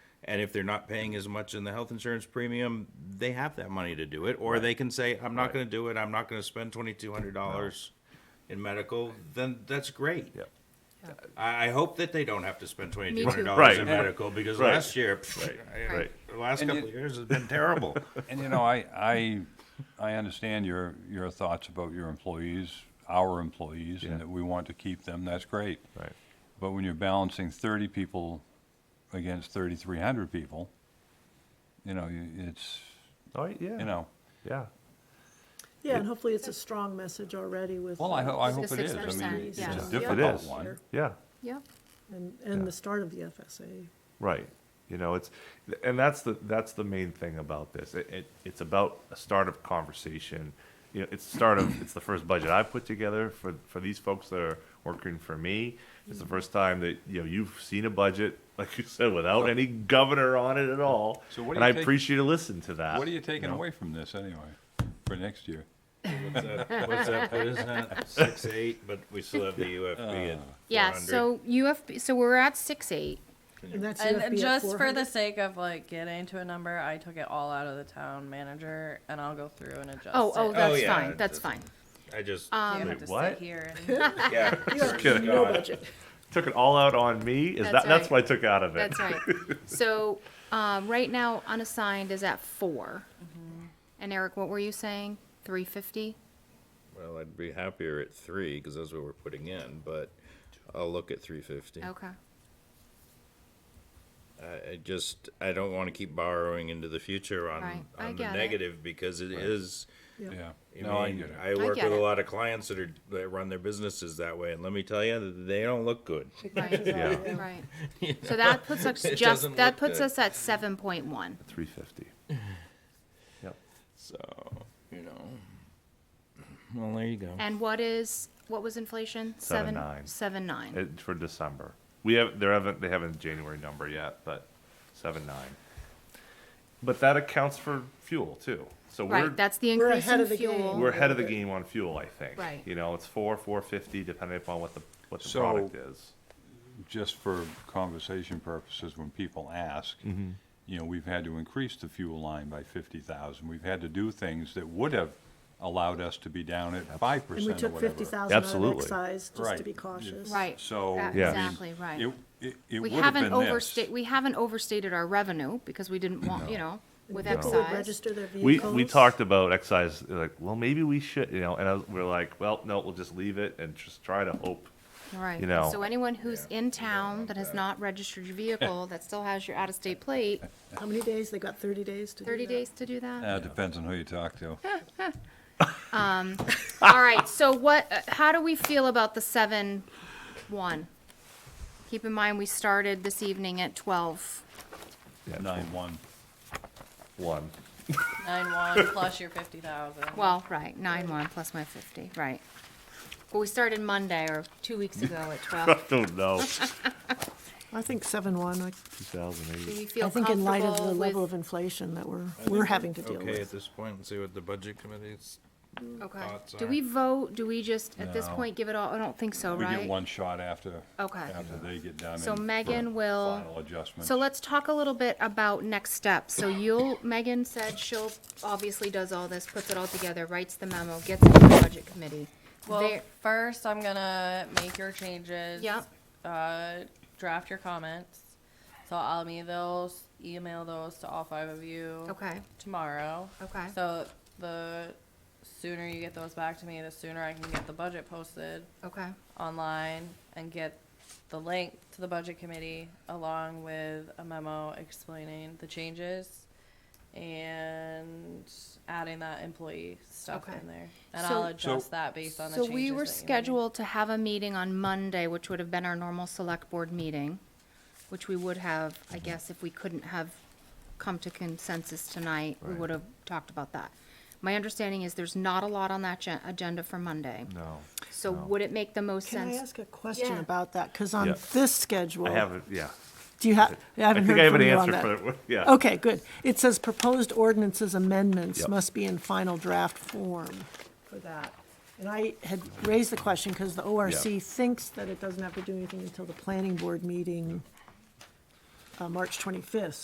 And if they're not paying as much in the health insurance premium, they have that money to do it, or they can say, I'm not gonna do it, I'm not gonna spend twenty-two hundred dollars in medical, then that's great. Yeah. I, I hope that they don't have to spend twenty-two hundred Right. dollars in medical, because Right. last year, pff, I- Right. the last And you- couple of years has been terrible. And you know, I, I, I understand your, your thoughts about your employees, our employees, Yeah. and that we want to keep them, that's great. Right. But when you're balancing thirty people against thirty-three hundred people, you know, you- it's, Oh, yeah. you know, Yeah. Yeah, and hopefully it's a strong message already with. well, I, uh, ho- I It's a hope it is. I mean, 6%, it's yeah. a Yeah. It difficult is. one. Yeah. Yep. And, and the start of the FSA. Right. You know, it's, and that's the, that's the main thing about this. It, it, it's about a start of conversation. You know, it's the start of, it's the first budget I put together for, for these folks that are working for me. It's the first time that, you know, you've seen a budget, like you said, without any governor on it at all. So what do And you I take- appreciate you listening to that. What are you taking know? away from this anyway, for next year? What's that, what's that, put us at? six, eight, but we still have the UFB at Yeah, 400. so UFB, so we're at six eight. And that's And UFB at just for 400. the sake of like getting to a number, I took it all out of the town manager, and I'll go through and adjust. Oh, oh, um, it. that's yeah, fine, it that's does. fine. I just, uh, So you Wait, have to what? sit here. And, yeah. kidding. No budget. Took it all out on me? Is That's that, that's right. what I took out of it. That's right. So, um, right now unassigned is at four. Mm-hmm. And Eric, what were you saying? Three fifty? Well, I'd be happier at three, because that's what we're putting in, but I'll look at three fifty. Okay. I, I just, I don't wanna keep borrowing into the future on, Right, I on the get it. negative, because it is, Yeah. I No, I mean, get it. I work get with a it. lot of clients that are, that run their businesses that way, and let me tell you, they don't look good. Right, Yeah, right. So that puts us It doesn't just, that look puts good. us at seven point one. three fifty. Yep. So, you know. Well, there you go. And what is, what was inflation? Seven nine. Seven nine. It, for December. We have, there haven't, they haven't a January number yet, but seven, nine. But that accounts for fuel too. So we're, Right, that's the We're increase ahead in of the game. fuel. we're ahead of the game on fuel, I think. Right. You know, it's four, four fifty, depending upon what the, what the So- product is. just for conversation purposes, when people ask, you know, we've had to increase the fuel line by fifty thousand. We've had to do things that would have allowed us to be down at five And we percent or took fifty whatever. thousand out of Absolutely. excise, just to Right. be cautious. Right. So, Uh, I Yeah. Exactly, right. It, it, it We would have been haven't this. overstated, we haven't overstated our revenue because we didn't want, you know, with People would excise. register their We, vehicles. we talked about excise, like, well, maybe we should, you know, and I was, we're like, well, no, we'll just leave it and just try to hope. Right. you know. So anyone who's in town that has not registered your vehicle, that still has your out-of-state plate, How many days? They got thirty days to do thirty that. days to do that? Uh, depends on who you talk to. All right, so what, uh, how do we feel about the seven, one? Keep in mind, we started this evening at twelve. Yeah, Nine one. One. nine one plus your fifty thousand. Well, right, nine one plus my fifty, right. But we started Monday or two weeks ago at twelve. Don't know. I think seven one, I Two thousand Do eight. we feel I think in light of the comfortable level with? of inflation that we're, we're having to deal Okay, at with. this point, and see what the budget committee's, Okay. thoughts Do are- we vote, do we just, at this No. point, give it all, I don't think so, We right? get one shot after, Okay. after they get done. So and for Megan will- Final adjustments. So let's talk a little bit about next steps. So you'll, Megan said she'll, obviously does all this, puts it all together, writes the memo, gets it to the budget committee. Well, There- first I'm gonna make your changes. Yep. Uh, draft your comments. So I'll email those, email those to all five of you. Okay. Tomorrow. Okay. So the sooner you get those back to me, the sooner I can get the budget posted Okay, online and get the link to the budget committee along with a memo explaining the changes and adding that employee stuff Okay. in there. And So- I'll So- adjust that based on the so changes. we were that you made. scheduled to have a meeting on Monday, which would have been our normal select board meeting, which we would have, I Mm-hmm. guess, if we couldn't have come to consensus tonight, we Right. would have talked about that. My understanding is there's not a lot on that gen- agenda for Monday. No. So no. would it make the most Can I sense? ask a question Yeah. about that? Cause on Yeah. this schedule. I haven't, yeah. Do you have, I haven't think I heard have from an you on answer that. for that. Yeah. Okay, good. It says proposed ordinances amendments Yep. must be in final draft form for that. And I had raised the question because the ORC thinks that it doesn't have to do anything until the planning board meeting, uh, March twenty-fifth.